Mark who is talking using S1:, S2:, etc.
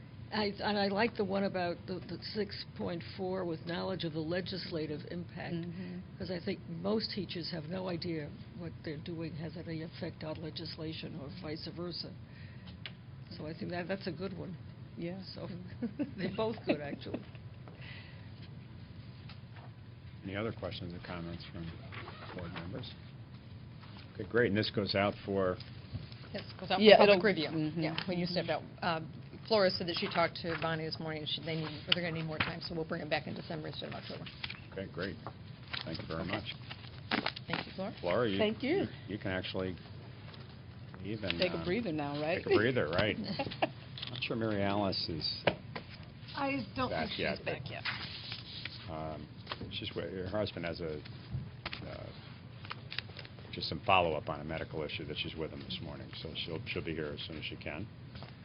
S1: I, and I like the one about the, the six point four with knowledge of the legislative impact,
S2: Mm-hmm.
S1: because I think most teachers have no idea what they're doing has any effect on legislation or vice versa. So I think that, that's a good one.
S2: Yeah.
S1: So, they're both good, actually.
S3: Any other questions or comments from board members? Okay, great, and this goes out for,
S4: Yes, goes out
S2: Yeah,
S4: for public
S2: it'll-
S4: review.
S2: mhm,
S4: Yeah, when you step out. Uh, Flora said that she talked to Bonnie this morning, and she, they need, they're going to need more time, so we'll bring it back in December instead of October.
S3: okay, great. Thank you very
S4: Okay.
S3: much.
S4: Thank you, Flora.
S3: Laura, you...
S2: Thank you.
S3: You can actually leave and...
S2: Take a
S3: um,
S2: breather now, right?
S3: Take a breather, right. Not sure Mary Alice is,
S4: I
S3: don't think Back she's yet, but- back
S4: yet.
S3: um, she's, wi- her husband has a, uh, just some follow-up on a medical issue that she's with him this morning, so she'll, she'll be here as soon as she can.